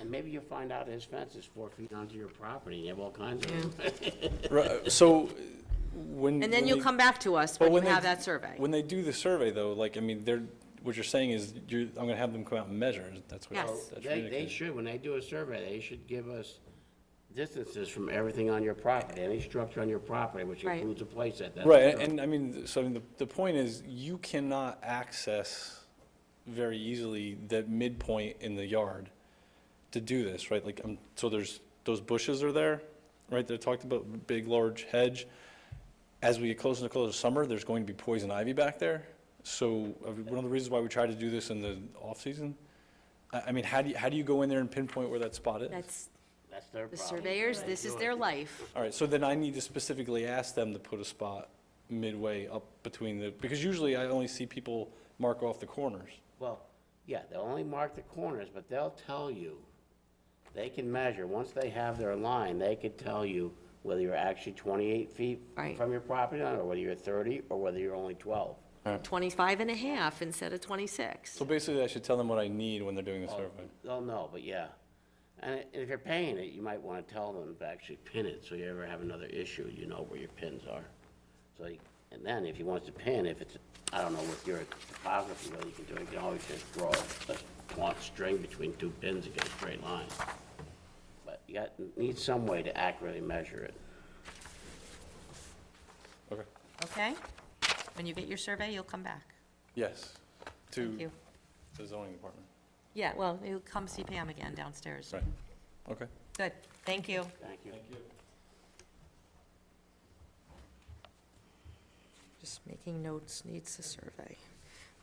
And maybe you'll find out his fence is four feet onto your property, you have all kinds of. Right, so uh, when. And then you'll come back to us But when you they- have that survey. When they do the survey though, like, I mean, they're, what you're saying is you're, I'm gonna have them come out and measure. That's what. Yes. that's They, what you're they indicating. should, when they do a survey, they should give us distances from everything on your property, any structure on your property, which Right. includes a place at that. Right, and- and I mean, so I mean, the, the point is you cannot access very easily that midpoint in the yard to do this, right? Like, um, so there's, those bushes are there, right? They talked about big, large hedge. As we get closer and closer to summer, there's going to be poison ivy back there. So uh, one of the reasons why we try to do this in the off-season, I, I mean, how do you, how do you go in there and pinpoint where that spot is? That's That's their the problem. surveyors, They this do is it. their life. All right, so then I need to specifically ask them to put a spot midway up between the, because usually I only see people mark off the corners. Well, yeah, they'll only mark the corners, but they'll tell you, they can measure, once they have their line, they could tell you whether you're actually twenty-eight feet Right. from your property line, or whether you're thirty, or whether you're only twelve. 25 and a half instead of 26. So basically, I should tell them what I need when they're doing the Oh. survey. They'll know, but yeah. And i- if you're paying it, you might wanna tell them to actually pin it, so you ever have another issue, you know where your pins are. So, you- and then if he wants to pin, if it's, I don't know with your topography, whether you can do it, you can always just draw a taut string between two pins against a straight line. But you got, need some way to accurately measure it. Okay, Okay? When you get your survey, you'll come back. yes, Thank to you. the zoning department. Yeah, well, you'll come see Pam again downstairs. Right, okay. Good, thank you. Thank you. Just making notes, needs a survey.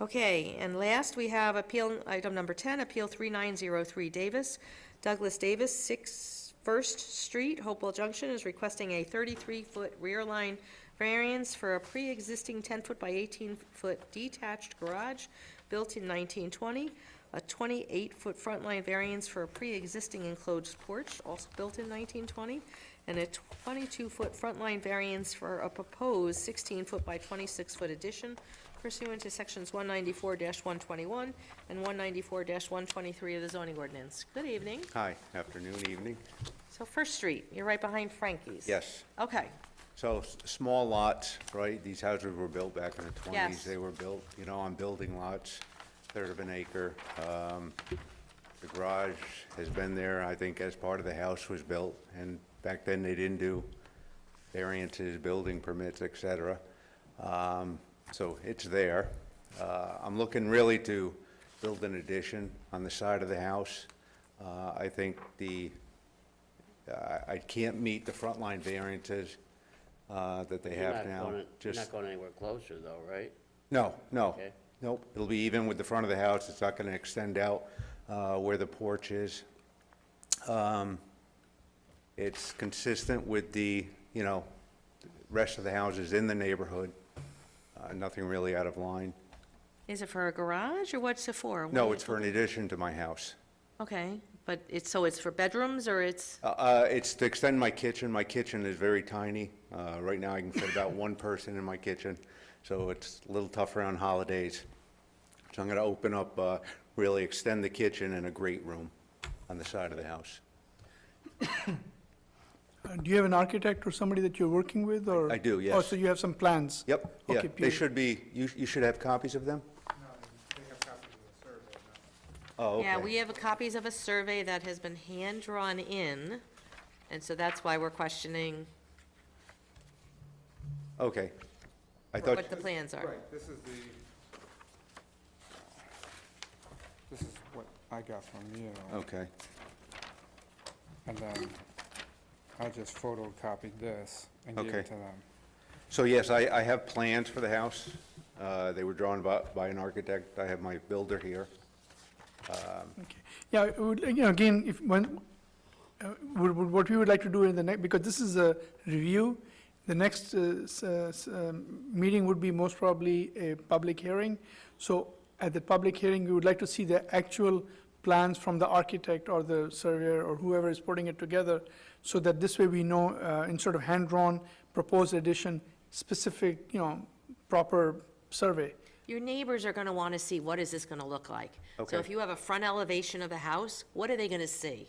Okay, and last, we have appeal, item number 10, Appeal 3903 Davis. Douglas Davis, 6 First Street, Hopewell Junction, is requesting a 33-foot rear line variance for a pre-existing 10-foot by 18-foot detached garage built in 1920, a 28-foot front line variance for a pre-existing enclosed porch, also built in 1920, and a 22-foot front line variance for a proposed 16-foot by 26-foot addition pursuant to sections 194-121 and 194-123 of the zoning ordinance. Good evening. Hi, afternoon, evening. So First Street, you're right behind Frankie's. Yes, Okay, so s- small lots, right? These houses were built back in the 20s. Yes. They were built, you know, on building lots, third of an acre. Um, The garage has been there, I think, as part of the house was built, and back then they didn't do variances, building permits, et cetera. Um, So it's there. Uh, I'm looking really to build an addition on the side of the house. Uh, I think the I I can't meet the front line variances uh, that they You're have not now. gonna- You're Just, not going anywhere closer though, right? no, no, Okay. nope. It'll be even with the front of the house. It's not going to extend out uh, where the porch is. Um, It's consistent with the, you know, rest of the houses in the neighborhood. Uh, Nothing really out of line. is it for a garage or what's it for? No, it's for an addition to my house. Okay, but it's, so it's for bedrooms or it's, Uh, uh, It's to extend my kitchen. My kitchen is very tiny. Uh, Right now, I can fit about one person in my kitchen, so it's a little tougher on holidays. So I'm going to open up, uh, really extend the kitchen and a great room on the side of the house. Uh, Do you have an architect or somebody that you're working with, or? I do, Oh, yes. so you have some plans? Yep, yeah, Okay, they beautiful. should be, you you should have copies of them? No, they yeah, have copies of the survey. Oh, okay. we have copies of a survey that has been hand-drawn in, and so that's why we're questioning Okay. I thought, what the plans are. Right, this is the, this is what I got from you, okay, and then I just photocopied this and gave it Okay. to them. so yes, I I have plans for the house. Uh, They were drawn by by an architect. I have my builder here. Okay. Yeah, it would, you know, again, if, when, uh, would, would, what we would like to do in the next, because this is a review, the next, uh, s- uh, s- um, meeting would be most probably a public hearing. So at the public hearing, we would like to see the actual plans from the architect or the surveyor or whoever is putting it together, so that this way we know, uh, instead of hand-drawn proposed addition, specific, you know, proper survey. Your neighbors are gonna wanna see, what is this gonna look like? So Okay. if you have a front elevation of a house, what are they gonna see?